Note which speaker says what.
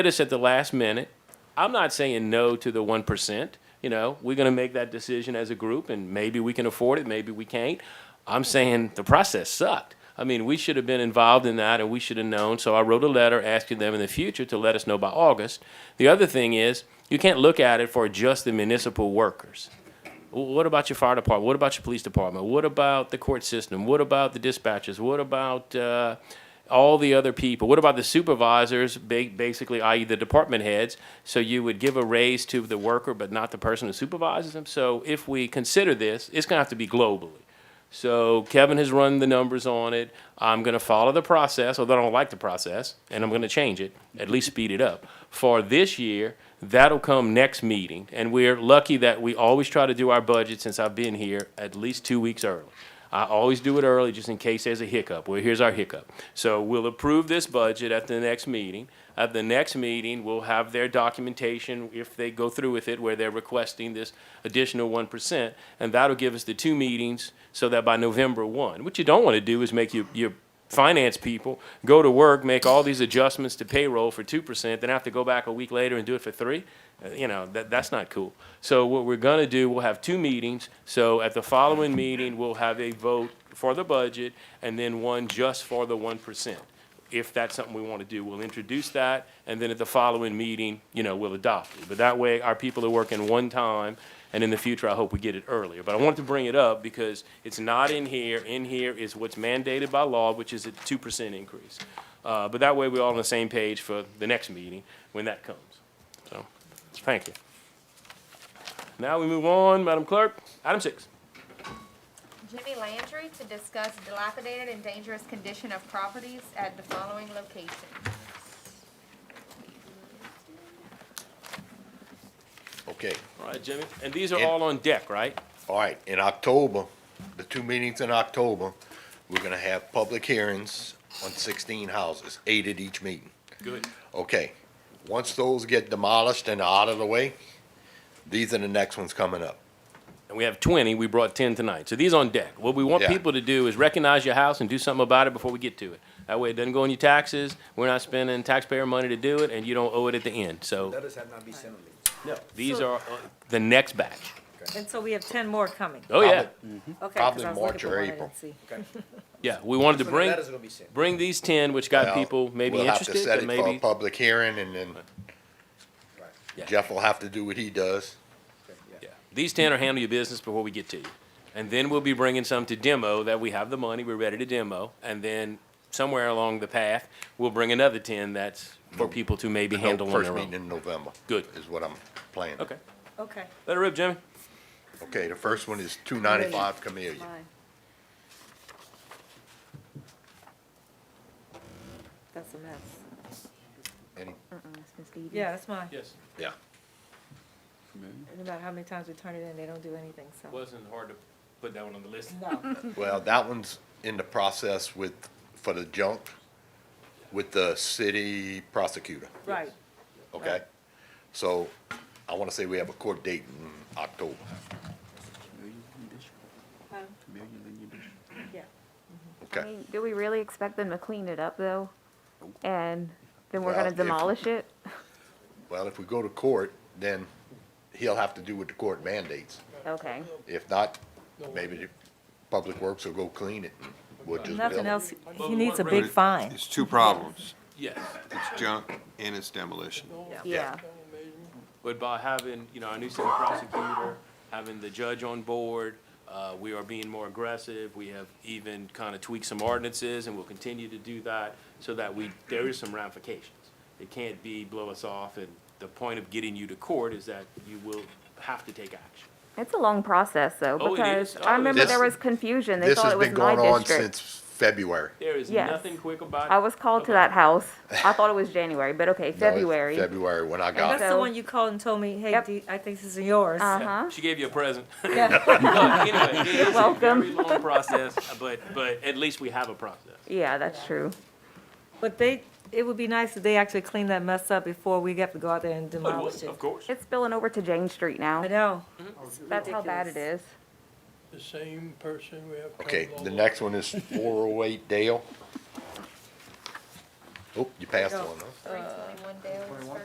Speaker 1: us at the last minute. I'm not saying no to the one percent. You know, we're going to make that decision as a group, and maybe we can afford it, maybe we can't. I'm saying the process sucked. I mean, we should have been involved in that, and we should have known. So I wrote a letter asking them in the future to let us know by August. The other thing is, you can't look at it for just the municipal workers. W- What about your fire department? What about your police department? What about the court system? What about the dispatchers? What about uh, all the other people? What about the supervisors, ba- basically, i.e., the department heads? So you would give a raise to the worker, but not the person who supervises them. So if we consider this, it's going to have to be globally. So Kevin has run the numbers on it. I'm going to follow the process, although I don't like the process, and I'm going to change it, at least speed it up. For this year, that'll come next meeting, and we're lucky that we always try to do our budget since I've been here at least two weeks early. I always do it early just in case there's a hiccup. Well, here's our hiccup. So we'll approve this budget at the next meeting. At the next meeting, we'll have their documentation, if they go through with it, where they're requesting this additional one percent. And that'll give us the two meetings so that by November one, what you don't want to do is make your, your finance people go to work, make all these adjustments to payroll for two percent, then have to go back a week later and do it for three. Uh, You know, that, that's not cool. So what we're gonna do, we'll have two meetings. So at the following meeting, we'll have a vote for the budget and then one just for the one percent. If that's something we want to do, we'll introduce that and then at the following meeting, you know, we'll adopt it. But that way, our people are working one time and in the future, I hope we get it earlier. But I wanted to bring it up because it's not in here. In here is what's mandated by law, which is a two percent increase. Uh, but that way, we're all on the same page for the next meeting when that comes. So, thank you. Now we move on, Madam Clerk, item six.
Speaker 2: Jimmy Landry to discuss dilapidated and dangerous condition of properties at the following locations.
Speaker 3: Okay,
Speaker 1: All right, Jimmy, and these are
Speaker 3: And-
Speaker 1: all on deck, right?
Speaker 3: all right, in October, the two meetings in October, we're gonna have public hearings on sixteen houses, eight at each meeting.
Speaker 1: Good.
Speaker 3: Okay, once those get demolished and out of the way, these are the next ones coming up.
Speaker 1: And we have twenty, we brought ten tonight, so these on deck. What we want
Speaker 3: Yeah.
Speaker 1: people to do is recognize your house and do something about it before we get to it. That way it doesn't go on your taxes, we're not spending taxpayer money to do it, and you don't owe it at the end, so
Speaker 4: Letters have not been sent.
Speaker 1: these
Speaker 5: So-
Speaker 1: are uh, the next batch.
Speaker 5: And so we have ten more coming.
Speaker 1: Oh, yeah,
Speaker 5: Okay, 'cause
Speaker 3: Probably
Speaker 5: I was
Speaker 3: March
Speaker 5: looking for
Speaker 3: or
Speaker 5: one I didn't
Speaker 3: April.
Speaker 5: see.
Speaker 1: yeah, we wanted to
Speaker 4: So the
Speaker 1: bring,
Speaker 4: Letters are gonna be sent.
Speaker 1: bring these ten, which got people maybe
Speaker 3: We'll have to
Speaker 1: interested,
Speaker 3: set
Speaker 1: but
Speaker 3: it for a
Speaker 1: maybe,
Speaker 3: Public hearing and then
Speaker 1: Yeah.
Speaker 3: Jeff will have to do what he does.
Speaker 4: Okay,
Speaker 1: yeah. These ten are handle your business before we get to you. And then we'll be bringing some to demo, that we have the money, we're ready to demo, and then somewhere along the path, we'll bring another ten that's for people to maybe
Speaker 3: No,
Speaker 1: handle on their
Speaker 3: Mm. First meeting
Speaker 1: own.
Speaker 3: in November.
Speaker 1: Good.
Speaker 3: Is what I'm planning.
Speaker 1: Okay,
Speaker 5: Okay.
Speaker 1: let it rip, Jimmy.
Speaker 3: Okay, the first one is two ninety-five Camellia.
Speaker 5: Mine. That's a mess.
Speaker 3: Any-
Speaker 5: Yeah, that's mine.
Speaker 1: Yes,
Speaker 3: Yeah,
Speaker 5: No matter how many times we turn it in, they don't do anything, so.
Speaker 1: wasn't hard to put that one on the list.
Speaker 5: No,
Speaker 3: well, that one's in the process with, for the junk, with the city prosecutor,
Speaker 5: right.
Speaker 3: okay? So I wanna say we have a court date in October.
Speaker 5: Yeah.
Speaker 6: I
Speaker 3: Okay,
Speaker 6: mean, do we really expect them to clean it up though? And then we're
Speaker 3: Well,
Speaker 6: gonna
Speaker 3: if-
Speaker 6: demolish it?
Speaker 3: well, if we go to court, then he'll have to do what the court mandates.
Speaker 6: Okay.
Speaker 3: If not, maybe the Public Works will go clean it. and We'll just
Speaker 5: Nothing
Speaker 3: build it.
Speaker 5: else,
Speaker 1: Well,
Speaker 5: he needs a
Speaker 1: really-
Speaker 5: big fine.
Speaker 7: It's two problems.
Speaker 1: Yes,
Speaker 7: It's junk and it's demolition.
Speaker 6: Yeah.
Speaker 1: but by having, you know, our new city prosecutor, having the judge on board, uh, we are being more aggressive. We have even kind of tweaked some ordinances and we will continue to do that so that we, there is some ramifications. It can't be blow us off and the point of getting you to court is that you will have to take action.
Speaker 6: It's a long process though,
Speaker 1: Oh, it
Speaker 6: because
Speaker 1: is. Oh,
Speaker 6: I remember
Speaker 3: this-
Speaker 6: there was confusion. They
Speaker 3: This
Speaker 6: thought
Speaker 3: has
Speaker 6: it was
Speaker 3: been
Speaker 6: my
Speaker 3: going on
Speaker 6: district.
Speaker 3: since February.
Speaker 1: There is
Speaker 6: Yes.
Speaker 1: nothing quick about it.
Speaker 6: I was called to that house. I thought it was January, but okay,
Speaker 3: No, it's
Speaker 6: February.
Speaker 3: February, when I got
Speaker 5: That's
Speaker 3: it.
Speaker 5: the
Speaker 6: So-
Speaker 5: one you called and told me, hey,
Speaker 6: Yep.
Speaker 5: D- I think this is yours.
Speaker 6: Uh-huh.
Speaker 1: She gave you a present.
Speaker 5: Yeah.
Speaker 1: No, anyway, it is a
Speaker 6: welcome.
Speaker 1: Very long process, but, but at least we have a process.
Speaker 6: Yeah, that's true.
Speaker 5: But they, it would be nice if they actually clean that mess up before we have to go out there and demolish it.
Speaker 1: Of course.
Speaker 6: It's spilling over to Jane Street
Speaker 5: I
Speaker 6: now.
Speaker 5: know.
Speaker 6: That's how bad it is.
Speaker 8: the same person we have.
Speaker 3: Okay,
Speaker 8: covered all
Speaker 3: the
Speaker 8: over.
Speaker 3: next one is four oh eight Dale. Oh, you passed one, huh?
Speaker 2: Three twenty-one Dale Spur.